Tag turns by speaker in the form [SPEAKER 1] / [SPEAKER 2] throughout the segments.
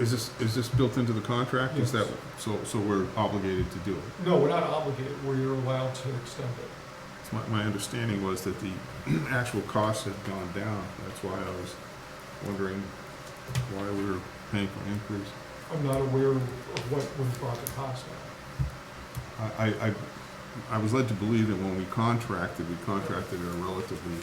[SPEAKER 1] Is this, is this built into the contract? Is that, so, so we're obligated to do it?
[SPEAKER 2] No, we're not obligated, we're allowed to extend it.
[SPEAKER 1] It's My, my understanding was that the actual costs had gone down. That's why I was wondering why we were paying for an increase.
[SPEAKER 2] I'm not aware of what was brought to pass now.
[SPEAKER 1] I, I- I, I was led to believe that when we contracted, we contracted at a relatively,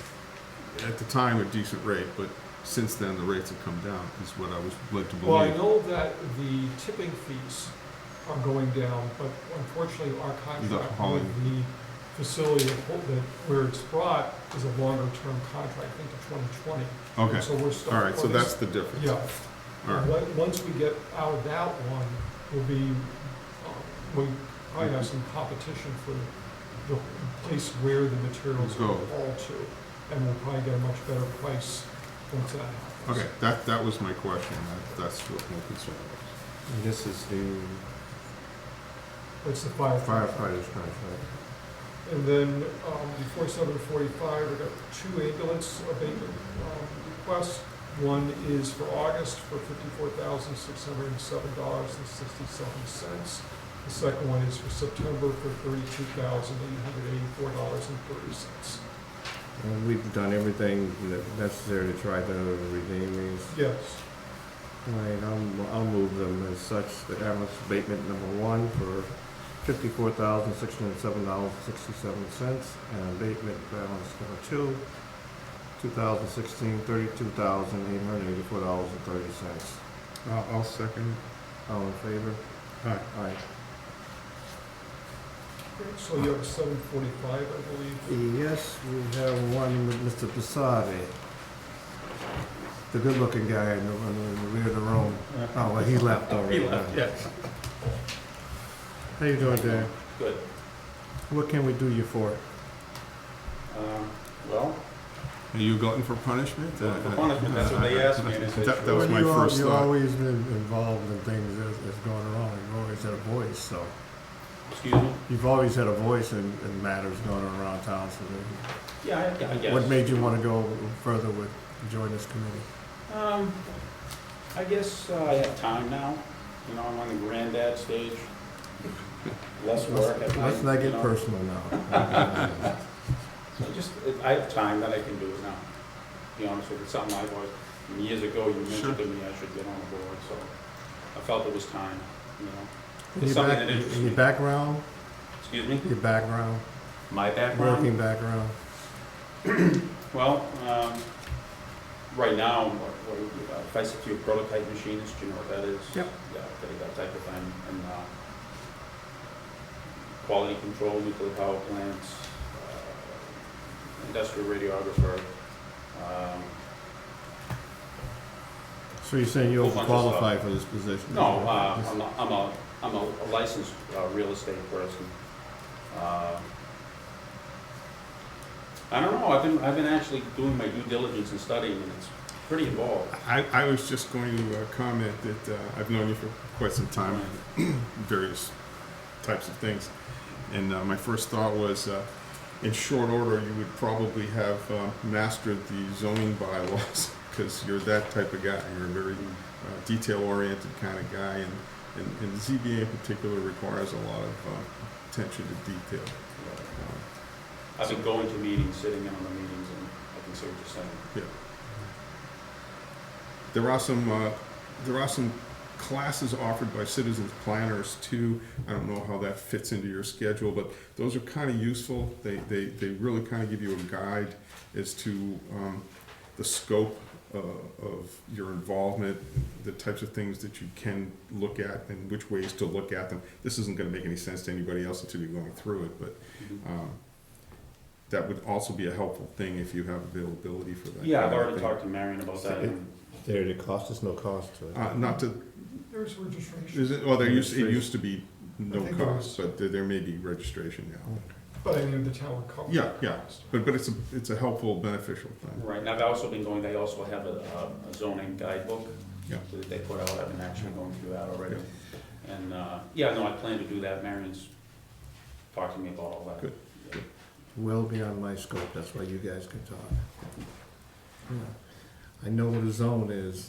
[SPEAKER 1] at the time, a decent rate, but since then, the rates have come down, is what I was led to
[SPEAKER 2] Well, I
[SPEAKER 1] believe.
[SPEAKER 2] know that the tipping fees are going down, but unfortunately, our contract
[SPEAKER 1] hauling.
[SPEAKER 2] with the facility of Hol- that where it's brought is a longer-term contract, I think to 2020.
[SPEAKER 1] Okay,
[SPEAKER 2] So we're stuck.
[SPEAKER 1] all right, so
[SPEAKER 2] for this-
[SPEAKER 1] that's the difference.
[SPEAKER 2] Yeah.
[SPEAKER 1] All right.
[SPEAKER 2] Once- Once we get out of that one, we'll be, uh, we probably have some competition for the place where the materials
[SPEAKER 1] Go.
[SPEAKER 2] will fall to. And we'll probably get a much better price once that happens.
[SPEAKER 1] Okay, that, that was my question. That- That's what my concern was.
[SPEAKER 3] And This is the
[SPEAKER 2] That's the firefighter.
[SPEAKER 3] firefighters contract.
[SPEAKER 2] And then, um, before seven forty-five, we got two ambulance abatement, um, requests. One is for August for fifty-four thousand, six hundred and seven dollars and sixty-seven cents. The second one is for September for thirty-two thousand, eight hundred eighty-four dollars and thirty cents.
[SPEAKER 3] And we've done everything that necessary to try to redeem these.
[SPEAKER 2] Yes,
[SPEAKER 3] Right, I'll, I'll move them as such, the ambulance abatement number one for fifty-four thousand, six hundred and seven dollars, sixty-seven cents, and abatement for ambulance number two, two thousand sixteen, thirty-two thousand, eight hundred and eighty-four dollars and thirty cents.
[SPEAKER 1] I'll, I'll second.
[SPEAKER 3] All in favor?
[SPEAKER 1] Aye.
[SPEAKER 3] Aye.
[SPEAKER 2] so you have seven forty-five, I believe.
[SPEAKER 3] Yes, we have one with Mr. Passari. The good-looking guy in the, in the rear of the room. Oh, well, he left already.
[SPEAKER 1] yes.
[SPEAKER 3] How you doing, Dan?
[SPEAKER 4] Good.
[SPEAKER 3] What can we do you for?
[SPEAKER 4] Um, Well,
[SPEAKER 1] Are you glutton for punishment? Uh,
[SPEAKER 4] Glutton for punishment, that's what they asked me, and I said,
[SPEAKER 1] That, that was
[SPEAKER 3] Well,
[SPEAKER 1] my
[SPEAKER 3] you al-
[SPEAKER 1] first
[SPEAKER 3] You've
[SPEAKER 1] thought.
[SPEAKER 3] always been involved in things that- that's going wrong. You've always had a voice, so.
[SPEAKER 4] excuse me?
[SPEAKER 3] You've always had a voice in, in matters going on around town, so then-
[SPEAKER 4] Yeah, I- yeah, I guess.
[SPEAKER 3] what made you want to go further with, join this committee?
[SPEAKER 4] Um, I guess uh, I have time now, you know, I'm on the granddad stage. Less work at
[SPEAKER 3] Let's-
[SPEAKER 4] night.
[SPEAKER 3] Let's not
[SPEAKER 4] you
[SPEAKER 3] get
[SPEAKER 4] know.
[SPEAKER 3] personal now.
[SPEAKER 4] So just, I have time that I can do it now, to be honest with you, it's something I've always, I mean, years ago, you mentioned to me I should get on the board, so I felt it was time, you know.
[SPEAKER 3] Your
[SPEAKER 4] It's something
[SPEAKER 3] back-
[SPEAKER 4] that interests
[SPEAKER 3] your
[SPEAKER 4] me.
[SPEAKER 3] background,
[SPEAKER 4] Excuse me?
[SPEAKER 3] your background,
[SPEAKER 4] My background?
[SPEAKER 3] working background.
[SPEAKER 4] Well, um, right now, what, what, do we- uh, if I said to you prototype machinist, do you know what that is?
[SPEAKER 3] Yep.
[SPEAKER 4] Yeah, okay, that type of thing, and, uh, quality control, nuclear power plants, uh, industrial radiographer, um,
[SPEAKER 3] So you're saying you
[SPEAKER 4] Whole bunch of stuff.
[SPEAKER 3] overqualified for this position?
[SPEAKER 4] no, uh, I'm a, I'm a, I'm a licensed, uh, real estate person. Uh, I don't know, I've been, I've been actually doing my due diligence and studying, and it's pretty involved.
[SPEAKER 1] I, I was just going to uh, comment that uh, I've known you for quite some time, various types of things. And uh, my first thought was, uh, in short order, you would probably have uh, mastered the zoning bylaws because you're that type of guy. You're a very uh, detail-oriented kind of guy, and, and, and ZBA in particular requires a lot of uh, attention to detail. Um,
[SPEAKER 4] I've been going to meetings, sitting in on the meetings, and I can see what you're saying.
[SPEAKER 1] There are some, uh, there are some classes offered by citizens planners too. I don't know how that fits into your schedule, but those are kind of useful. They, they, they really kind of give you a guide as to, um, the scope, uh, of your involvement, the types of things that you can look at and which ways to look at them. This isn't gonna make any sense to anybody else until you're going through it, but, um, that would also be a helpful thing if you have availability for that.
[SPEAKER 4] Yeah, I've
[SPEAKER 1] kind of
[SPEAKER 4] already
[SPEAKER 1] thing.
[SPEAKER 4] talked to Marion about that, and
[SPEAKER 3] There, the cost is no cost to it.
[SPEAKER 1] Uh, not to,
[SPEAKER 2] There's registration,
[SPEAKER 1] is it, well, there used, it used to be no
[SPEAKER 2] I think it
[SPEAKER 1] cost, but there, there may be registration now.
[SPEAKER 2] but I mean, the town would cover.
[SPEAKER 1] Yeah,
[SPEAKER 2] that
[SPEAKER 1] yeah,
[SPEAKER 2] cost.
[SPEAKER 1] but, but it's a, it's a helpful, beneficial thing.
[SPEAKER 4] right, and I've also been going, they also have a a zoning guidebook
[SPEAKER 1] Yeah.
[SPEAKER 4] that they put out, I've been actually going through that already.
[SPEAKER 1] Yeah.
[SPEAKER 4] And, uh, yeah, no, I plan to do that, Marion's talked to me about all that.
[SPEAKER 1] Good.
[SPEAKER 3] Well beyond my scope, that's why you guys can talk. Yeah. I know what a zone is,